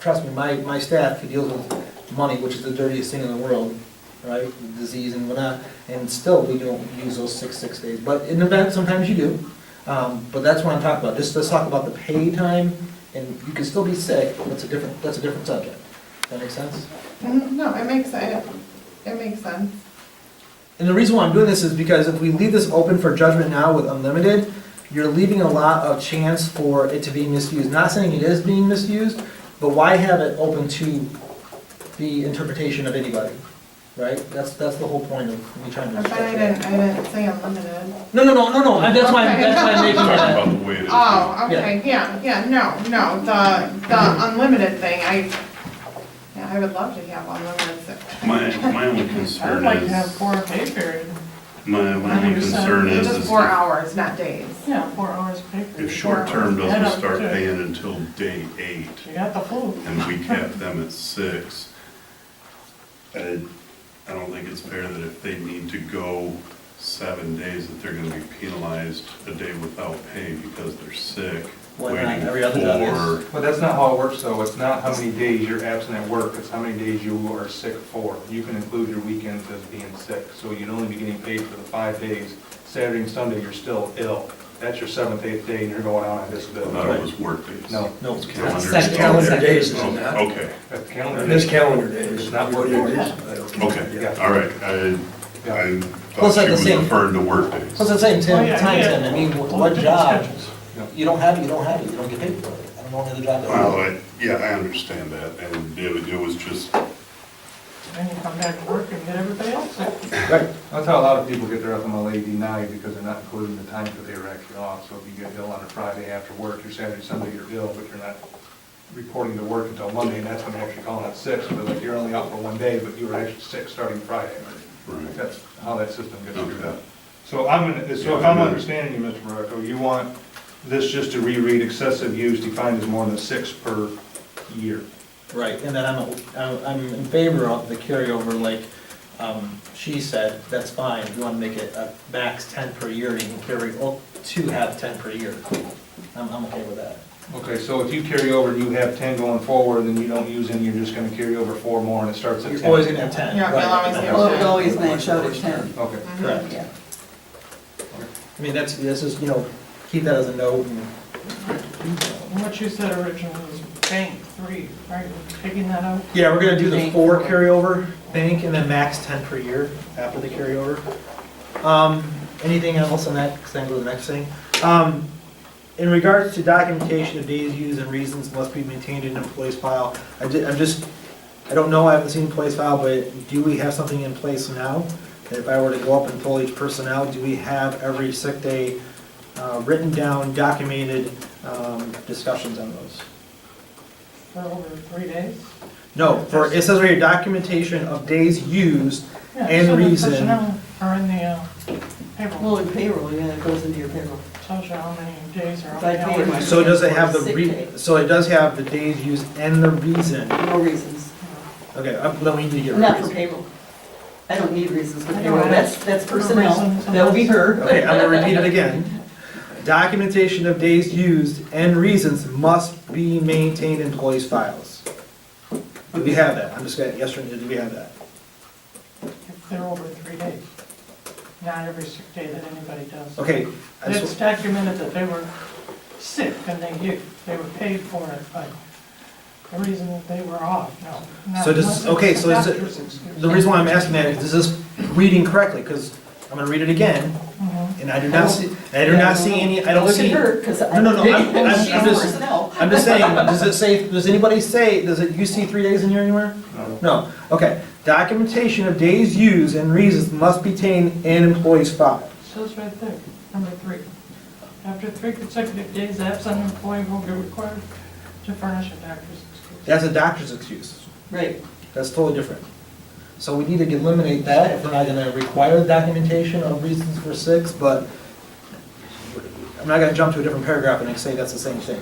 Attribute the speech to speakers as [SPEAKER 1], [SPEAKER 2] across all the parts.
[SPEAKER 1] trust me, my, my staff who deals with money, which is the dirtiest thing in the world, right, disease and whatnot, and still, we don't use those six, six days, but in the event, sometimes you do. Um, but that's what I'm talking about, just, let's talk about the pay time, and you can still be sick, that's a different, that's a different subject. That makes sense?
[SPEAKER 2] Mm, No, it makes, it, it makes sense.
[SPEAKER 1] And the reason why I'm doing this is because if we leave this open for judgment now with unlimited, you're leaving a lot of chance for it to be misused. Not saying it is being misused, but why have it open to the interpretation of anybody, right? That's, that's the whole point of me trying to.
[SPEAKER 2] But I didn't, I didn't say unlimited.
[SPEAKER 1] No, no, no, no, no, that's why, that's why I'm making
[SPEAKER 3] Talking
[SPEAKER 1] that.
[SPEAKER 3] about the way it is.
[SPEAKER 2] Oh, okay, yeah, yeah, no, no, the, the unlimited thing, I, yeah, I would love to have unlimited sick.
[SPEAKER 3] My, my only
[SPEAKER 4] I would
[SPEAKER 3] concern
[SPEAKER 4] like to have
[SPEAKER 3] is,
[SPEAKER 4] four pay period,
[SPEAKER 3] my, my only
[SPEAKER 4] 100%.
[SPEAKER 3] concern is,
[SPEAKER 2] Just
[SPEAKER 3] is
[SPEAKER 2] four
[SPEAKER 3] if-
[SPEAKER 2] hours, not days.
[SPEAKER 4] yeah, four hours pay period.
[SPEAKER 3] if short-term
[SPEAKER 4] Four hours. Add
[SPEAKER 3] doesn't
[SPEAKER 4] up
[SPEAKER 3] start
[SPEAKER 4] to-
[SPEAKER 3] paying until day eight,
[SPEAKER 4] You got the flu.
[SPEAKER 3] and we cap them at six, I, I don't think it's fair that if they need to go seven days, that they're gonna be penalized a day without pay because they're sick,
[SPEAKER 1] Why not?
[SPEAKER 3] waiting
[SPEAKER 1] Every other job is.
[SPEAKER 3] for,
[SPEAKER 5] But that's not how it works, though. It's not how many days you're absent at work, it's how many days you are sick for. You can include your weekends as being sick, so you'd only be getting paid for the five days. Saturday and Sunday, you're still ill. That's your seventh, eighth day, and you're going out on
[SPEAKER 3] thought
[SPEAKER 5] disability.
[SPEAKER 3] it was work days.
[SPEAKER 5] No,
[SPEAKER 1] No,
[SPEAKER 3] Calendar.
[SPEAKER 6] That's calendar days, is it not?
[SPEAKER 3] Oh, Okay,
[SPEAKER 5] that's
[SPEAKER 6] It
[SPEAKER 5] calendar.
[SPEAKER 6] is calendar days.
[SPEAKER 5] It's not work days.
[SPEAKER 3] okay,
[SPEAKER 5] Yeah.
[SPEAKER 3] all right, I, I
[SPEAKER 1] Plus, at
[SPEAKER 3] thought she
[SPEAKER 1] the
[SPEAKER 3] was
[SPEAKER 1] same-
[SPEAKER 3] referring to work days.
[SPEAKER 1] So it's the same
[SPEAKER 4] Oh,
[SPEAKER 1] time,
[SPEAKER 4] yeah,
[SPEAKER 1] time,
[SPEAKER 4] yeah.
[SPEAKER 1] Tim, I mean, what-
[SPEAKER 4] Well,
[SPEAKER 1] what
[SPEAKER 4] different
[SPEAKER 1] job,
[SPEAKER 4] schedules.
[SPEAKER 1] you don't have it, you don't have it, you don't get paid for it. I don't know any other job that
[SPEAKER 3] Well,
[SPEAKER 1] will.
[SPEAKER 3] I, yeah, I understand that, and it, was- it was just,
[SPEAKER 4] Then you come back to work and get everybody else sick.
[SPEAKER 5] That's how a lot of people get their FMLA denied, because they're not including the time that they were actually off. So if you get ill on a Friday after work, your Saturday, Sunday, you're ill, but you're not reporting to work until Monday, and that's when they're actually calling out sick. So like, you're only out for one day, but you were actually sick starting Friday.
[SPEAKER 3] Right.
[SPEAKER 5] That's how that system gets screwed
[SPEAKER 3] Okay.
[SPEAKER 5] up. So I'm, gonna- so if I'm understanding you, Mr. Morocco, you want this just to reread excessive use defined as more than six per year.
[SPEAKER 1] Right, and then I'm, I'm- I'm in favor of the carryover, like um, she said, that's fine, you want to make it a max 10 per year, you can carry up to have 10 per year. I'm, I'm okay with that.
[SPEAKER 5] Okay, so if you carry over, you have ten going forward, and you don't use any, you're just gonna carry over four more, and it starts at
[SPEAKER 1] You're
[SPEAKER 5] ten?
[SPEAKER 1] always going to have 10.
[SPEAKER 2] Yeah, we'll
[SPEAKER 1] right.
[SPEAKER 2] always have
[SPEAKER 7] Well, it would always match out at ten.
[SPEAKER 5] Okay.
[SPEAKER 2] Mm-hmm.
[SPEAKER 1] Correct.
[SPEAKER 7] Yeah.
[SPEAKER 1] I mean, that's, this is, you know, keep that as a note and
[SPEAKER 4] And What you said originally was bank three, right, We're taking that out?
[SPEAKER 1] Yeah, we're gonna do the
[SPEAKER 7] Bank.
[SPEAKER 1] four carryover bank and then max ten per year after the carryover. Um, anything else on that, because I can go to the next thing. Um, in regards to documentation of days used and reasons must be maintained in employee's file, I did, I'm just, I don't know, I haven't seen employee's file, but do we have something in place now? That If I were to go up and pull each personnel, do we have every sick day, uh, written down, documented, um, discussions on those?
[SPEAKER 4] For over three days?
[SPEAKER 1] No, for, it says right here, documentation of days used,
[SPEAKER 4] Yeah,
[SPEAKER 1] And
[SPEAKER 4] so the
[SPEAKER 1] reason.
[SPEAKER 4] personnel Are in the uh, payroll,
[SPEAKER 7] Well, in payroll, yeah, it goes into your payroll.
[SPEAKER 4] tells you how many days are
[SPEAKER 7] If
[SPEAKER 4] on
[SPEAKER 7] I
[SPEAKER 4] the
[SPEAKER 7] pay my-
[SPEAKER 4] hours.
[SPEAKER 1] so it doesn't have the
[SPEAKER 7] Sick
[SPEAKER 1] re,
[SPEAKER 7] day.
[SPEAKER 1] so it does have the days used and the reason.
[SPEAKER 7] No reasons.
[SPEAKER 1] Okay, I'm- then we need to get rid
[SPEAKER 7] Not
[SPEAKER 1] of
[SPEAKER 7] for
[SPEAKER 1] reason.
[SPEAKER 7] payroll. I don't need reasons for
[SPEAKER 4] I know,
[SPEAKER 7] payroll.
[SPEAKER 4] I don't-
[SPEAKER 7] That's, that's
[SPEAKER 4] For
[SPEAKER 7] personnel.
[SPEAKER 4] reasons,
[SPEAKER 7] That will be her.
[SPEAKER 1] Okay, I'm gonna repeat it again. Documentation of days used and reasons must be maintained in employees' files. Do we have that? I'm just gonna, yes or no, do we have that?
[SPEAKER 4] If they're over three days, not every sick day that anybody does.
[SPEAKER 1] Okay, I just-
[SPEAKER 4] It's documented that they were sick and they did, they were paid for it, but the reason that they were off, no. not-
[SPEAKER 1] So this is- okay, so is it-
[SPEAKER 4] Doctor's excuse.
[SPEAKER 1] the reason why I'm asking that is this is reading correctly, because I'm gonna read it again,
[SPEAKER 4] Mhm.
[SPEAKER 1] and I do not see, I do not see any, I don't
[SPEAKER 7] Look
[SPEAKER 1] see.
[SPEAKER 7] at her, because I.
[SPEAKER 1] No, no, no, I'm- I'm-
[SPEAKER 7] She's
[SPEAKER 1] I'm just-
[SPEAKER 7] personnel.
[SPEAKER 1] I'm just saying, does it say, does anybody say, does it, you see three days in here anywhere?
[SPEAKER 5] No.
[SPEAKER 1] No, okay. Documentation of days used and reasons must be contained in employee's file.
[SPEAKER 4] Says right there, number three. After three consecutive days absent, an employee will be required to furnish a doctor's excuse.
[SPEAKER 1] That's a doctor's excuse.
[SPEAKER 7] Right.
[SPEAKER 1] That's totally different. So we need to eliminate that if we're not gonna require documentation of reasons for six, but I'm not gonna jump to a different paragraph and say that's the same thing.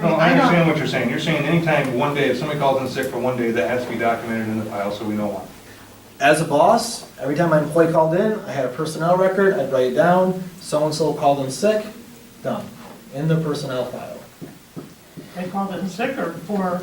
[SPEAKER 5] No,
[SPEAKER 2] I
[SPEAKER 5] I
[SPEAKER 2] don't-
[SPEAKER 5] understand what you're saying. You're saying anytime, one day, if somebody calls in sick for one day, that has to be documented in the file, so we know why.
[SPEAKER 1] As a boss, every time my employee called in, I had a personnel record, I'd write it down, so-and-so called in sick, done, in the personnel file.
[SPEAKER 4] They called it sick or for